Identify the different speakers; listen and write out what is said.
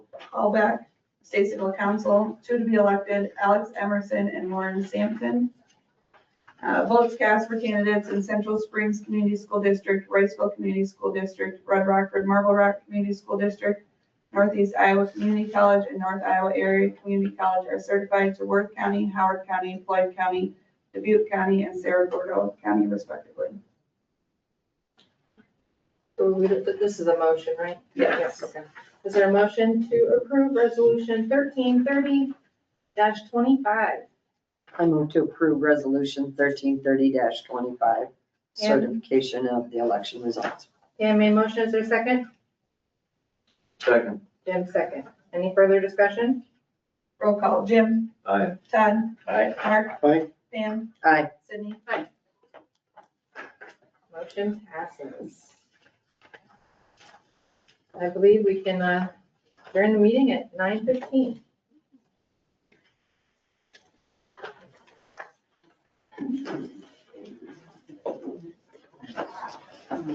Speaker 1: Albeck, State Civil Council, two to be elected, Alex Emerson and Lauren Sampson. Uh, Votes cast for candidates in Central Springs Community School District, Riceville Community School District, Red Rockford Marble Rock Community School District, Northeast Iowa Community College, and North Iowa Area Community College are certified to Worth County, Howard County, Floyd County, Dubuque County, and Sarah Gordo County respectively.
Speaker 2: So we, did- this is a motion, right?
Speaker 1: Yes.
Speaker 2: Okay. Is there a motion to approve resolution thirteen thirty twenty-five?
Speaker 3: I move to approve resolution thirteen thirty twenty-five,
Speaker 2: Yeah.
Speaker 3: certification of the election results.
Speaker 2: Dan made motion, is there a second?
Speaker 4: Second.
Speaker 2: Jim second. Any further discussion?
Speaker 1: Roll call, Jim.
Speaker 4: Aye.
Speaker 1: Todd.
Speaker 4: Aye.
Speaker 1: Mark.
Speaker 4: Aye.
Speaker 1: Pam.
Speaker 3: Aye.
Speaker 1: Sydney.
Speaker 2: Motion passes. I believe we can, uh, during the meeting at nine fifteen.